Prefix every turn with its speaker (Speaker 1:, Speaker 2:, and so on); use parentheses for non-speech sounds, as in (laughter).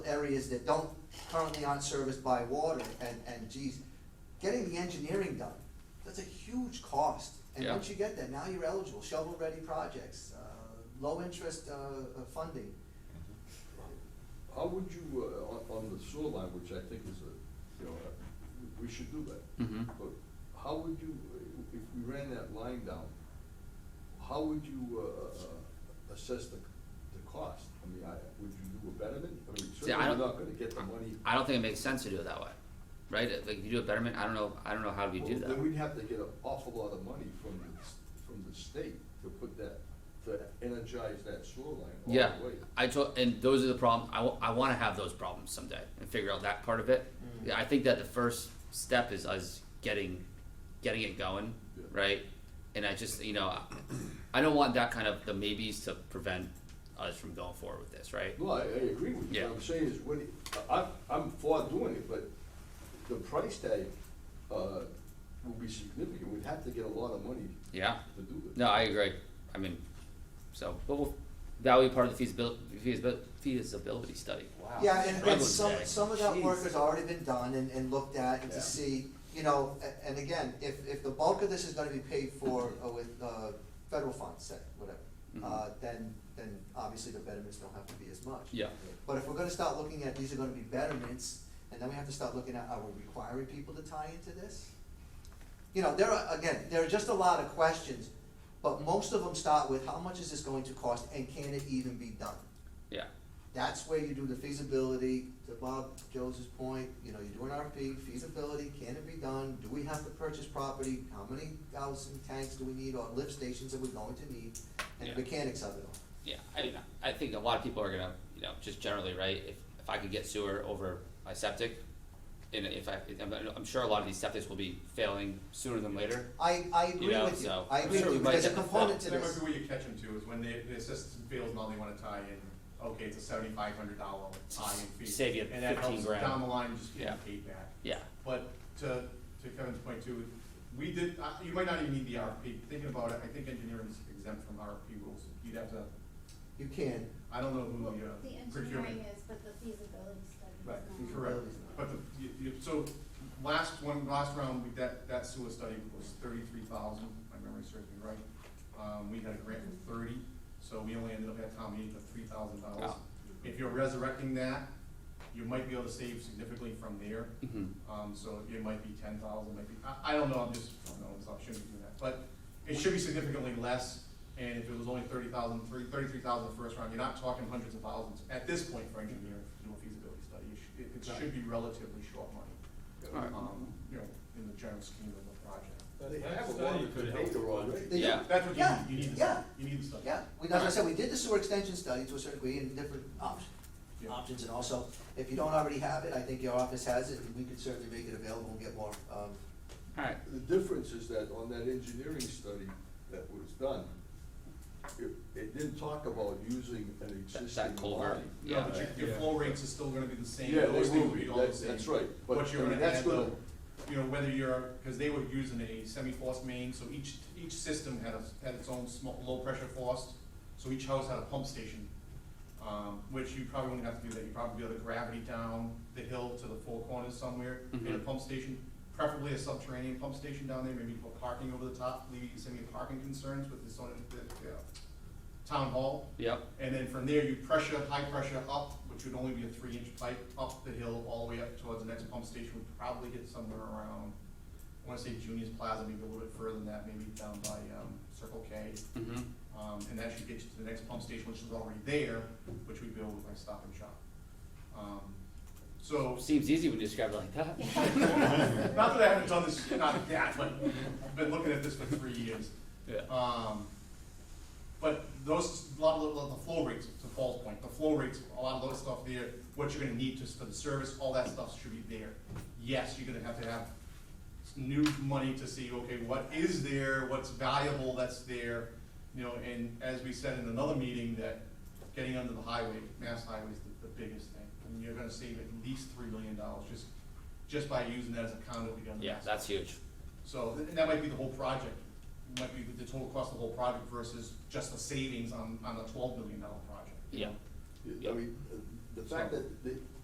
Speaker 1: areas that don't currently aren't serviced by water, and, and geez, getting the engineering done, that's a huge cost. And
Speaker 2: Yeah.
Speaker 1: once you get that, now you're eligible, shovel-ready projects, uh, low-interest, uh, uh, funding.
Speaker 3: How would you, uh, on, on the sewer line, which I think is a, you know, uh, we we should do that.
Speaker 2: Mhm.
Speaker 3: But how would you, uh, if we ran that line down, how would you, uh, assess the, the cost? I mean, I, would you do a betterment? I mean,
Speaker 2: See, I
Speaker 3: certainly
Speaker 2: don't-
Speaker 3: not gonna get the money.
Speaker 2: I don't think it makes sense to do it that way, right? If, Like, if you do a betterment, I don't know, I don't know how you do
Speaker 3: Well, Then
Speaker 2: that.
Speaker 3: we'd have to get an awful lot of money from the, s- from the state to put that, to energize that sewer line all the way.
Speaker 2: Yeah, I told, and those are the problems, I, wa- I wanna have those problems someday and figure out that part of it.
Speaker 3: Mm-hmm.
Speaker 1: Mm.
Speaker 2: Yeah, I think that the first step is us getting, getting it going,
Speaker 3: Yeah.
Speaker 2: right? And I just, you know, I- I don't want that kind of, the maybes to prevent us from going forward with this, right?
Speaker 3: No, I, I agree with you,
Speaker 2: Yeah.
Speaker 3: what I'm saying is, when, it- I, I'm for doing it, but the price tag, uh, will be significant, we'd have to get a lot of money
Speaker 2: Yeah.
Speaker 3: to do it.
Speaker 2: No, I agree. I mean, so, but we'll, that will be part of the feasibility, feasibility, feasibility study.
Speaker 4: Wow.
Speaker 1: Yeah, and, and
Speaker 2: Struggling
Speaker 1: some,
Speaker 2: day.
Speaker 1: some of that work
Speaker 4: Jeez.
Speaker 1: has already been done and, and looked at and to
Speaker 3: Yeah.
Speaker 1: see, you know, a- and again, if, if the bulk of this is gonna be paid for uh, with, uh, federal funds, say, whatever, uh, then, then obviously the betterments don't have to be as much.
Speaker 2: Yeah.
Speaker 1: But if we're gonna start looking at, these are gonna be betterments, and then we have to start looking at, are we requiring people to tie into this? You know, there are, again, there are just a lot of questions, but most of them start with, how much is this going to cost and can it even be done?
Speaker 2: Yeah.
Speaker 1: That's where you do the feasibility, to Bob Joseph's point, you know, you do an RFP, feasibility, can it be done? Do we have to purchase property? How many thousand tanks do we need or lift stations are we going to need? And
Speaker 2: Yeah.
Speaker 1: the mechanics of it all.
Speaker 2: Yeah, I mean, I think a lot of people are gonna, you know, just generally, right, if, if I could get sewer over my septic, and if I, I'm, I'm sure a lot of these septics will be failing sooner than later.
Speaker 1: I, I agree
Speaker 2: know,
Speaker 1: with you,
Speaker 2: so
Speaker 1: I
Speaker 2: I'm
Speaker 1: agree
Speaker 2: sure
Speaker 1: with
Speaker 2: we
Speaker 1: you,
Speaker 2: might
Speaker 1: there's a
Speaker 2: get the-
Speaker 1: component to this.
Speaker 5: That might be where you catch them too, is when the, the assistant feels now they wanna tie in, okay, it's a seventy-five hundred dollar tie-in fee.
Speaker 2: Save you
Speaker 5: And that
Speaker 2: 15
Speaker 5: helps
Speaker 2: grand.
Speaker 5: down the line, just
Speaker 2: Yeah.
Speaker 5: getting paid back.
Speaker 2: Yeah,
Speaker 5: But to, to Kevin's point too, we did, uh, you might not even need the RFP, thinking about it, I think engineering is exempt from RFP rules, you'd have to,
Speaker 1: You can,
Speaker 5: I don't know
Speaker 6: Well,
Speaker 5: who the uh,
Speaker 6: the
Speaker 5: procurement.
Speaker 6: engineering is, but the feasibility study is
Speaker 5: Right,
Speaker 6: not.
Speaker 5: correct, but the, you, you, so, last one, last round, we, that, that sewer study was thirty-three thousand, my memory serves me right. Um, we had a grant for thirty, so we only ended up at town meeting for three thousand dollars.
Speaker 2: Wow.
Speaker 5: If you're resurrecting that, you might be able to save significantly from there,
Speaker 2: hmm
Speaker 5: um, so it might be ten thousand, might be, I, I don't know, I'm just, I don't know, it's not, shouldn't be doing that, but it should be significantly less, and if it was only thirty thousand, three, thirty-three thousand the first round, you're not talking hundreds of thousands, at this point for engineering, to do a feasibility study, it should, it- it should be relatively short money.
Speaker 2: Alright.
Speaker 5: Um, you know, in the general scheme of the project.
Speaker 3: They have a lot of good acre already.
Speaker 1: They-
Speaker 2: Yeah.
Speaker 5: That's what you
Speaker 1: Yeah,
Speaker 5: need, you need the
Speaker 1: yeah.
Speaker 5: study, you need the study.
Speaker 1: yeah, we, as I said, we did the sewer extension study to a certain degree and different options,
Speaker 5: Yeah.
Speaker 1: options, and also, if you don't already have it, I think your office has it, and we could certainly make it available and get more, um,
Speaker 2: alright,
Speaker 3: The difference is that on that engineering study that was done, it, it didn't talk about using an existing
Speaker 2: culvert,
Speaker 3: line.
Speaker 2: yeah.
Speaker 5: No, but your, your flow rates are still gonna be the same,
Speaker 3: Yeah, they
Speaker 5: those things
Speaker 3: will
Speaker 5: will
Speaker 3: be.
Speaker 5: be all the
Speaker 3: That's-
Speaker 5: same.
Speaker 3: that's right. But,
Speaker 5: But
Speaker 3: I
Speaker 5: you're
Speaker 3: mean,
Speaker 5: gonna
Speaker 3: that's
Speaker 5: add
Speaker 3: gonna-
Speaker 5: though, you know, whether you're, cause they were using a semi-forced main, so each, each system had a, had its own small, low-pressure forced, so each house had a pump station, um, which you probably wouldn't have to do that, you'd probably be able to gravity down the hill to the four corners somewhere, in a
Speaker 2: Mhm.
Speaker 5: pump station, preferably a subterranean pump station down there, maybe put parking over the top, leaving some of your parking concerns with this, on the, the, uh, town hall.
Speaker 2: yep,
Speaker 5: And then from there, you pressure, high pressure up, which would only be a three inch pipe, up the hill, all the way up towards the next pump station, would probably hit somewhere around, I wanna say Junius Plaza, maybe a little bit further than that, maybe down by, um, Circle K.
Speaker 2: hmm
Speaker 5: Um, and that should get you to the next pump station, which is already there, which we build with my stop and shop. Um, So,
Speaker 2: Seems easy when you describe it like that.
Speaker 5: (laughs) not that I haven't done this, not that, but I've been looking at this for three years.
Speaker 2: Yeah.
Speaker 5: Um, but those, a lot of the, the flow rates, to Paul's point, the flow rates, a lot of those stuff there, what you're gonna need just for the service, all that stuff should be there. Yes, you're gonna have to have s- new money to see, okay, what is there, what's valuable that's there, you know, and as we said in another meeting, that getting under the highway, mass highway is the, the biggest thing. And you're gonna save at least three million dollars just, just by using that as a conduit to get on
Speaker 2: (laughs)
Speaker 5: the
Speaker 2: Yeah,
Speaker 5: mass
Speaker 2: that's huge.
Speaker 5: so, th- and that might be the whole project, It might be the total cost of the whole project versus just the savings on, on the twelve million dollar project.
Speaker 2: Yeah.
Speaker 3: I mean, uh, the fact that, the